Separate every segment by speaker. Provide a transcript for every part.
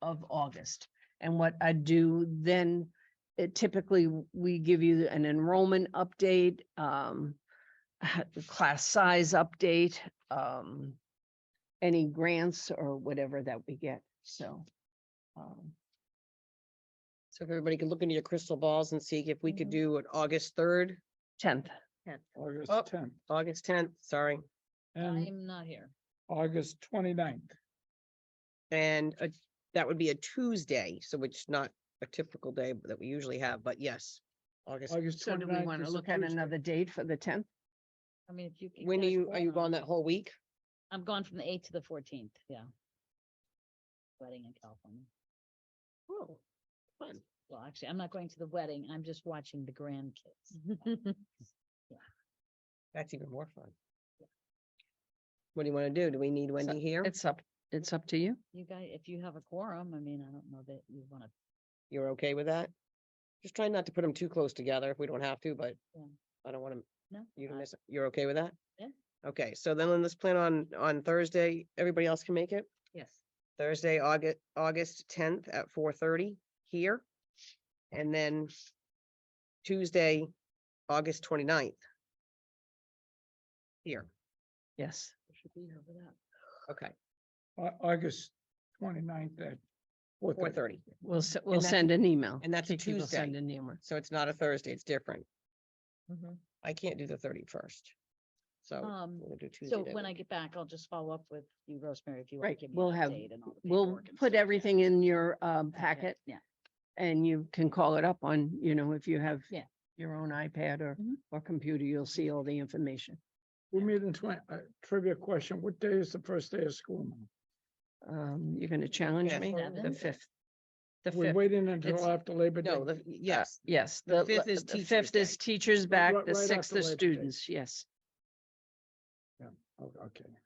Speaker 1: of August. And what I do then, it typically, we give you an enrollment update, um, the class size update, um, any grants or whatever that we get, so. um,
Speaker 2: So if everybody could look into your crystal balls and see if we could
Speaker 1: Mhm.
Speaker 2: do an August third,
Speaker 1: Tenth,
Speaker 3: August
Speaker 2: Oh.
Speaker 3: tenth
Speaker 2: August tenth, sorry,
Speaker 3: and
Speaker 4: I'm not here.
Speaker 3: August 29th.
Speaker 2: and uh, that would be a Tuesday, so it's not a typical day that we usually have, but yes. August,
Speaker 3: August
Speaker 1: so do we
Speaker 3: 29th
Speaker 1: want to
Speaker 3: is a
Speaker 1: look at
Speaker 3: Tuesday.
Speaker 1: another date for the tenth?
Speaker 4: I mean, if you. c-
Speaker 2: when are
Speaker 4: there's
Speaker 2: you, are you
Speaker 4: four
Speaker 2: gone
Speaker 4: on-
Speaker 2: that whole week?
Speaker 4: I'm gone from the eighth to the fourteenth, yeah. Wedding in California.
Speaker 2: Oh, fun.
Speaker 4: Well, actually, I'm not going to the wedding. I'm just watching the
Speaker 2: Mm-hmm.
Speaker 4: grandkids.
Speaker 2: That's even more fun. What do you want to do? Do we need Wendy here?
Speaker 1: It's up, it's up to you.
Speaker 4: You guys, if you have a quorum, I mean, I don't know that you want to.
Speaker 2: You're okay with that? Just try not to put them too close together if we don't have to, but
Speaker 4: Yeah.
Speaker 2: I don't want to,
Speaker 4: No. Uh,
Speaker 2: you to
Speaker 4: I-
Speaker 2: miss, it. you're okay with that?
Speaker 4: Yeah.
Speaker 2: Okay, so then let's plan on, on Thursday. Everybody else can make it?
Speaker 4: Yes.
Speaker 2: Thursday, August, August tenth at four thirty here. And then Tuesday, August 29th Here,
Speaker 1: Yes,
Speaker 4: we Should be over that.
Speaker 2: okay,
Speaker 3: Au- August 29th at four
Speaker 2: four
Speaker 3: thirty.
Speaker 2: thirty.
Speaker 1: we'll, s- we'll
Speaker 2: that's-
Speaker 1: send an email.
Speaker 2: and that's a
Speaker 1: Kiki will
Speaker 2: Tuesday.
Speaker 1: Send an email.
Speaker 2: So it's not a Thursday, it's different. I can't do the thirty-first. So
Speaker 4: Um,
Speaker 2: Oh, we'll do Tuesday.
Speaker 4: so
Speaker 2: that
Speaker 4: when I
Speaker 2: week.
Speaker 4: get back, I'll just follow up with you, Rosemary, if you want
Speaker 1: Right,
Speaker 4: to give me.
Speaker 1: we'll
Speaker 4: an
Speaker 1: have-
Speaker 4: update and all the
Speaker 1: We'll
Speaker 4: paperwork and stuff,
Speaker 1: put
Speaker 4: yeah.
Speaker 1: everything in your um
Speaker 4: Okay,
Speaker 1: packet
Speaker 4: Yeah,
Speaker 1: and you can call it up on, you know, if you have
Speaker 4: Yeah.
Speaker 1: your own iPad or,
Speaker 4: Mhm.
Speaker 1: or computer, you'll see all the information.
Speaker 3: We meet in twenty, uh, trivia question, what day is the first day of school? now?
Speaker 1: Um, you're gonna challenge
Speaker 2: Fifth.
Speaker 1: me? The
Speaker 4: Seventh?
Speaker 1: fifth. The
Speaker 3: We're
Speaker 1: fifth,
Speaker 3: waiting until
Speaker 1: It's-
Speaker 3: after Labor Day.
Speaker 2: No, the, yes,
Speaker 1: yes.
Speaker 2: the
Speaker 1: le-
Speaker 2: fifth is
Speaker 1: The fifth
Speaker 2: Teachers'
Speaker 1: is teachers back,
Speaker 3: right-
Speaker 1: the
Speaker 3: right
Speaker 1: sixth
Speaker 3: after
Speaker 1: is
Speaker 3: Labor Day.
Speaker 1: students, yes.
Speaker 3: Oh, Okay.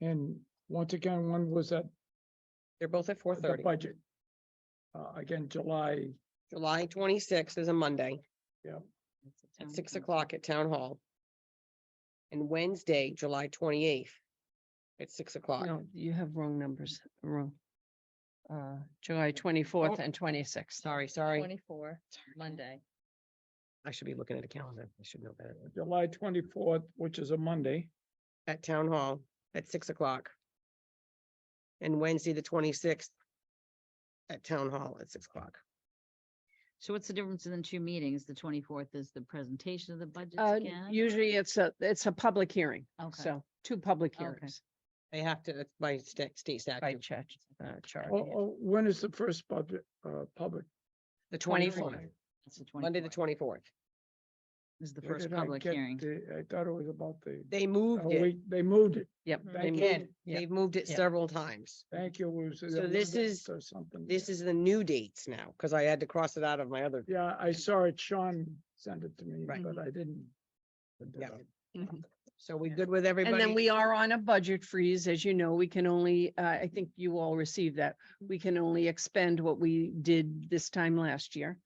Speaker 3: And once again, one was at
Speaker 2: they're both at four
Speaker 3: the
Speaker 2: thirty.
Speaker 3: budget. Uh, again, July,
Speaker 2: July twenty-sixth is a Monday
Speaker 4: that's the
Speaker 2: at
Speaker 4: town
Speaker 2: six
Speaker 4: council.
Speaker 2: o'clock at Town Hall. And Wednesday, July twenty-eighth at six o'clock.
Speaker 1: No, you have wrong numbers, wrong. Uh, July twenty-fourth and twenty-sixth.
Speaker 2: Sorry, sorry.
Speaker 4: Twenty-four, Monday.
Speaker 2: I should be looking at a calendar. I should know better.
Speaker 3: July twenty-fourth, which is a Monday,
Speaker 2: At Town Hall at six o'clock. And Wednesday, the twenty-sixth at Town Hall at six o'clock.
Speaker 4: So what's the difference in the two meetings? The twenty-fourth is the presentation of the budget
Speaker 1: Uh,
Speaker 4: again?
Speaker 1: usually it's a, it's a public hearing,
Speaker 4: Okay.
Speaker 1: so two public
Speaker 4: Okay.
Speaker 1: hearings
Speaker 2: They have to, that's by sta- state
Speaker 1: by
Speaker 2: statute,
Speaker 1: church, uh, charge.
Speaker 3: Oh, oh, when is the first budget, uh, public?
Speaker 2: the
Speaker 1: 24th.
Speaker 2: twenty-fourth,
Speaker 4: That's the
Speaker 2: Monday, the
Speaker 4: 24th
Speaker 2: twenty-fourth.
Speaker 4: Is the
Speaker 3: Where
Speaker 4: first
Speaker 3: did I
Speaker 4: public
Speaker 3: get
Speaker 4: hearing.
Speaker 3: the- I thought it was about the,
Speaker 2: They
Speaker 3: oh,
Speaker 2: moved it. Mm-hmm.
Speaker 3: wait, they moved it.
Speaker 1: Yep. they
Speaker 3: Thank
Speaker 1: moved-
Speaker 3: you.
Speaker 2: Again,
Speaker 1: yeah.
Speaker 2: they've moved it
Speaker 1: Yeah.
Speaker 2: several times.
Speaker 3: Thank you, Luz.
Speaker 2: So this is- This is the new dates now, because I had to cross it out of my other.
Speaker 3: Yeah, I saw it. Sean sent it to me,
Speaker 2: Right.
Speaker 3: but I didn't. but
Speaker 2: Yeah.
Speaker 3: did
Speaker 2: So we good with everybody?
Speaker 1: And then we are on a budget freeze, as you know, we can only, uh, I think you all received that. We can only expend what we did this time last year.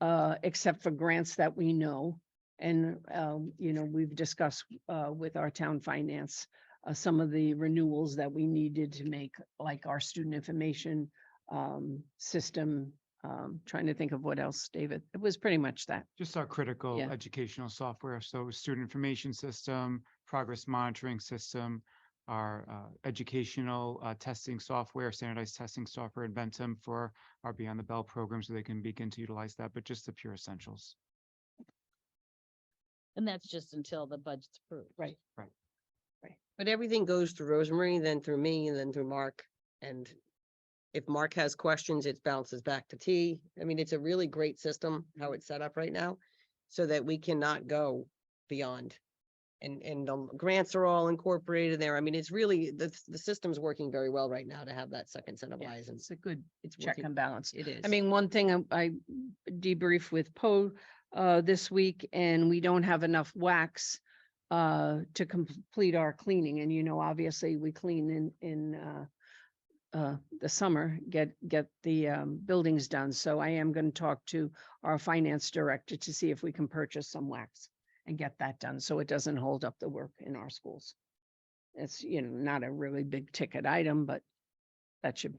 Speaker 1: Uh, except for grants that we know. And, um, you know, we've discussed, uh, with our town finance. Uh, some of the renewals that we needed to make, like our student information, um, system. Um, trying to think of what else, David. It was pretty much that.
Speaker 5: Just our critical
Speaker 1: Yeah.
Speaker 5: educational software, so student information system, progress monitoring system, our uh, educational uh, testing software, standardized testing software, Inventum for our Beyond the Bell program, so they can begin to utilize that, but just the pure essentials.
Speaker 4: And that's just until the budget's approved.
Speaker 1: Right.
Speaker 2: But everything goes through Rosemary, then through me, and then through Mark. And if Mark has questions, it bounces back to T. I mean, it's a really great system,
Speaker 1: Mm-hmm.
Speaker 2: how it's set up right now, so that we cannot go beyond. And, and the grants are all incorporated there. I mean, it's really, the, the system's working very well right now to have that second set of
Speaker 1: Yeah,
Speaker 2: eyes and
Speaker 1: It's a good
Speaker 2: it's
Speaker 1: check
Speaker 2: working.
Speaker 1: and balance.
Speaker 2: It is.
Speaker 1: I mean, one thing I- I debriefed with Poe uh this week and we don't have enough wax uh to complete our cleaning. And you know, obviously we clean in in uh uh the summer, get get the um buildings done. So I am going to talk to our finance director to see if we can purchase some wax and get that done so it doesn't hold up the work in our schools. It's, you know, not a really big ticket item, but that should